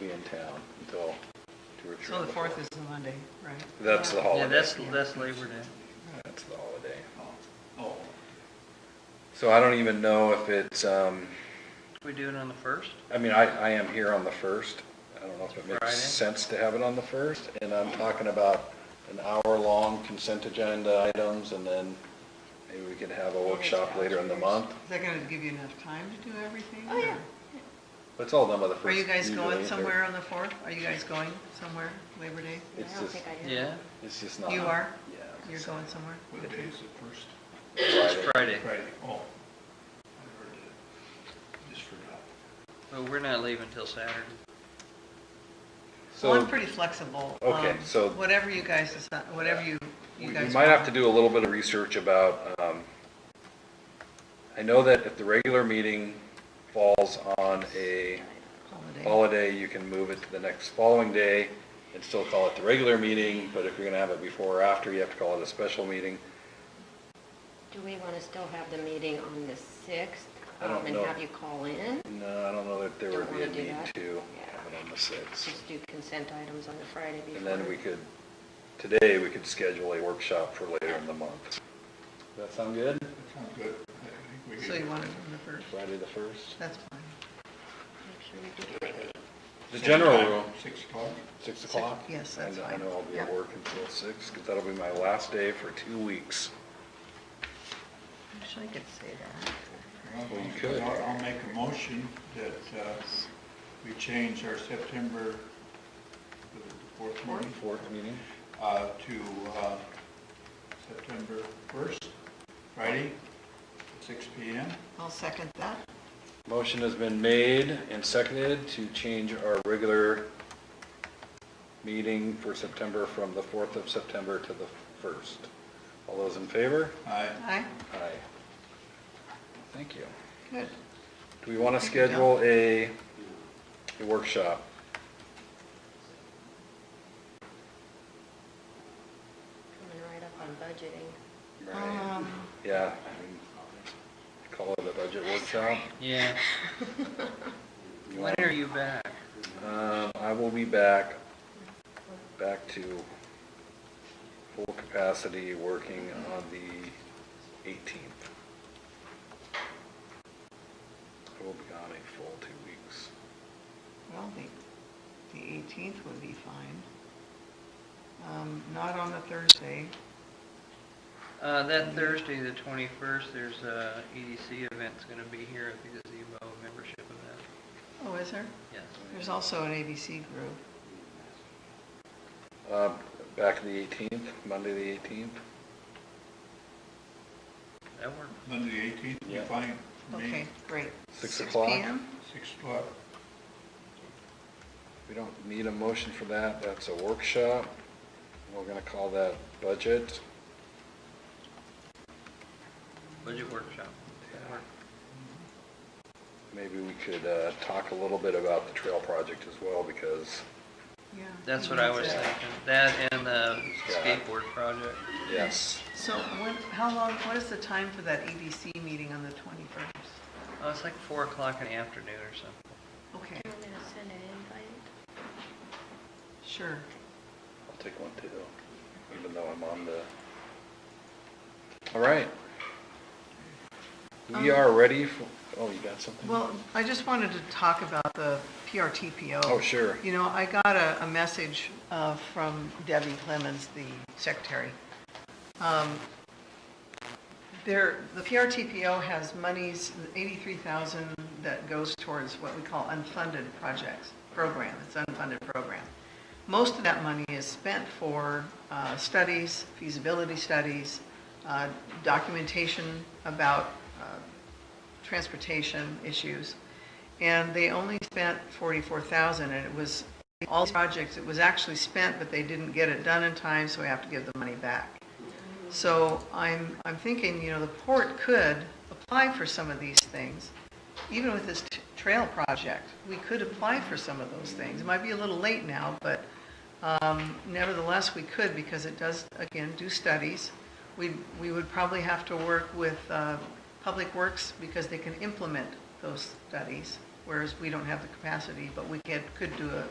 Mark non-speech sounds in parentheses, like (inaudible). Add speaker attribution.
Speaker 1: in town until two or three.
Speaker 2: So
Speaker 1: on
Speaker 2: the fourth
Speaker 1: fourth.
Speaker 2: is the Monday, right?
Speaker 1: That's the holiday.
Speaker 3: Yeah, that's, that's Labor Day.
Speaker 1: That's the holiday.
Speaker 4: Oh,
Speaker 1: So I don't even know if it's, um,
Speaker 3: We do it on the first?
Speaker 1: I mean, I, I am here on the first. I don't know if it
Speaker 3: Friday.
Speaker 1: makes sense to have it on the first, and I'm talking about an hour-long consent agenda items, and then maybe we could have a workshop later in the month.
Speaker 2: Is that gonna give you enough time to do everything?
Speaker 5: Oh, yeah.
Speaker 1: But It's all done by the first.
Speaker 2: Are you guys
Speaker 1: usually,
Speaker 2: going
Speaker 1: or-
Speaker 2: somewhere on the fourth? Are you guys going somewhere Labor Day?
Speaker 1: It's
Speaker 5: I don't
Speaker 1: just,
Speaker 5: think I do.
Speaker 3: Yeah,
Speaker 1: it's just not.
Speaker 2: You are?
Speaker 1: Yeah.
Speaker 2: You're
Speaker 1: it's
Speaker 2: going somewhere?
Speaker 4: what day is it, first?
Speaker 3: it's
Speaker 1: Friday.
Speaker 3: Friday,
Speaker 4: Friday, oh. I heard it. Just forgot.
Speaker 3: but we're not leaving till Saturday.
Speaker 2: Well, I'm
Speaker 1: So
Speaker 2: pretty flexible.
Speaker 1: Okay,
Speaker 2: um,
Speaker 1: so-
Speaker 2: Whatever you guys decide, whatever you,
Speaker 1: we
Speaker 2: you
Speaker 1: we
Speaker 2: guys.
Speaker 1: might have
Speaker 2: want.
Speaker 1: to do a little bit of research about, um, I know that if the regular meeting falls on a
Speaker 2: Holiday.
Speaker 1: holiday, you can move it to the next following day and still call it the regular meeting, but if you're gonna have it before or after, you have to call it a special meeting.
Speaker 5: Do we want to still have the meeting on the 6th?
Speaker 1: I don't
Speaker 5: um,
Speaker 1: know.
Speaker 5: And have you call in?
Speaker 1: No, I don't know that there would be a
Speaker 5: Don't wanna do
Speaker 1: need
Speaker 5: that?
Speaker 1: to
Speaker 5: Yeah.
Speaker 1: have it on the sixth.
Speaker 5: Just do consent items on the Friday before.
Speaker 1: And then we could, today, we could schedule a workshop for later in the month. Does that sound good?
Speaker 4: That sounds good. I think we
Speaker 2: So
Speaker 4: could-
Speaker 2: you want it on the first?
Speaker 1: Friday the first?
Speaker 2: That's fine.
Speaker 5: Make sure we do Friday.
Speaker 1: The
Speaker 4: Same
Speaker 1: general
Speaker 4: time,
Speaker 1: rule,
Speaker 4: Six o'clock?
Speaker 1: six o'clock?
Speaker 2: yes,
Speaker 1: I
Speaker 2: that's
Speaker 1: know- I
Speaker 2: fine.
Speaker 1: know I'll be at
Speaker 2: Yeah.
Speaker 1: work until six, because that'll be my last day for two weeks.
Speaker 2: Wish I could say
Speaker 1: Well, you could.
Speaker 4: I'll I'll make a motion that uh, we change our September, was it the fourth meeting,
Speaker 1: Fourth meeting?
Speaker 4: uh, to uh, September 1st, Friday, six PM.
Speaker 2: that. I'll second that.
Speaker 1: Motion has been made and seconded to change our regular meeting for September from the 4th of September to the 1st. All those in favor?
Speaker 4: I
Speaker 2: Aye,
Speaker 1: Aye. Thank you.
Speaker 2: good.
Speaker 1: Do we want to
Speaker 2: Thank you, Bill.
Speaker 1: schedule a a workshop?
Speaker 5: Coming right up on budgeting.
Speaker 2: Um,
Speaker 1: Yeah. I mean, Call it a budget workshop.
Speaker 3: Yeah. (laughs)
Speaker 1: You
Speaker 3: When
Speaker 1: want-
Speaker 3: are you back?
Speaker 1: Um, I will be back, back to full capacity, working on the 18th. I will be gone a full two weeks.
Speaker 2: Well, the, the eighteenth would be fine. Um, not on the Thursday.
Speaker 3: Uh, that Thursday, the twenty-first, there's a EDC event's gonna be here at the gazebo membership event.
Speaker 2: Oh, is there?
Speaker 3: Yes.
Speaker 2: There's also an ABC group.
Speaker 1: Uh, Back to the 18th, Monday the 18th.
Speaker 3: That works.
Speaker 4: Monday, the 18th, we
Speaker 1: Yeah.
Speaker 4: find, for me,
Speaker 2: Okay, great.
Speaker 1: Six o'clock?
Speaker 2: PM?
Speaker 4: six o'clock.
Speaker 1: We don't need a motion for that, that's a workshop. We're gonna call that budget.
Speaker 3: Budget workshop. That works.
Speaker 1: Maybe we could uh, talk a little bit about the trail project as well, because,
Speaker 2: Yeah.
Speaker 3: That's what I was
Speaker 2: That's it.
Speaker 3: thinking. That and the
Speaker 1: Yeah.
Speaker 3: skateboard project.
Speaker 1: yes,
Speaker 2: So when, how long, what is the time for that ABC meeting on the 21st?
Speaker 3: Oh, it's like four o'clock in the afternoon or something.
Speaker 2: Okay,
Speaker 5: Do you want me to send an invite?
Speaker 2: sure.
Speaker 1: I'll take one too, even though I'm on the. All right. We
Speaker 2: Um,
Speaker 1: are ready for, oh, you got something?
Speaker 2: Well, I just wanted to talk about the PRTPO.
Speaker 1: Oh, sure.
Speaker 2: You know, I got a, a message uh, from Debbie Clemens, the secretary. Um, There, the PRTPO has monies, 83,000 that goes towards what we call unfunded projects, program, it's unfunded program. Most of that money is spent for uh, studies, feasibility studies, uh, documentation about uh, transportation issues, and they only spent forty-four thousand, and it was, all these projects, it was actually spent, but they didn't get it done in time, so we have to give the money back. So I'm, I'm thinking, you know, the port could apply for some of these things, even with this t- trail project, we could apply for some of those things. It might be a little late now, but um, nevertheless, we could, because it does, again, do studies. We, we would probably have to work with uh, Public Works, because they can implement those studies, whereas we don't have the capacity, but we could, could do a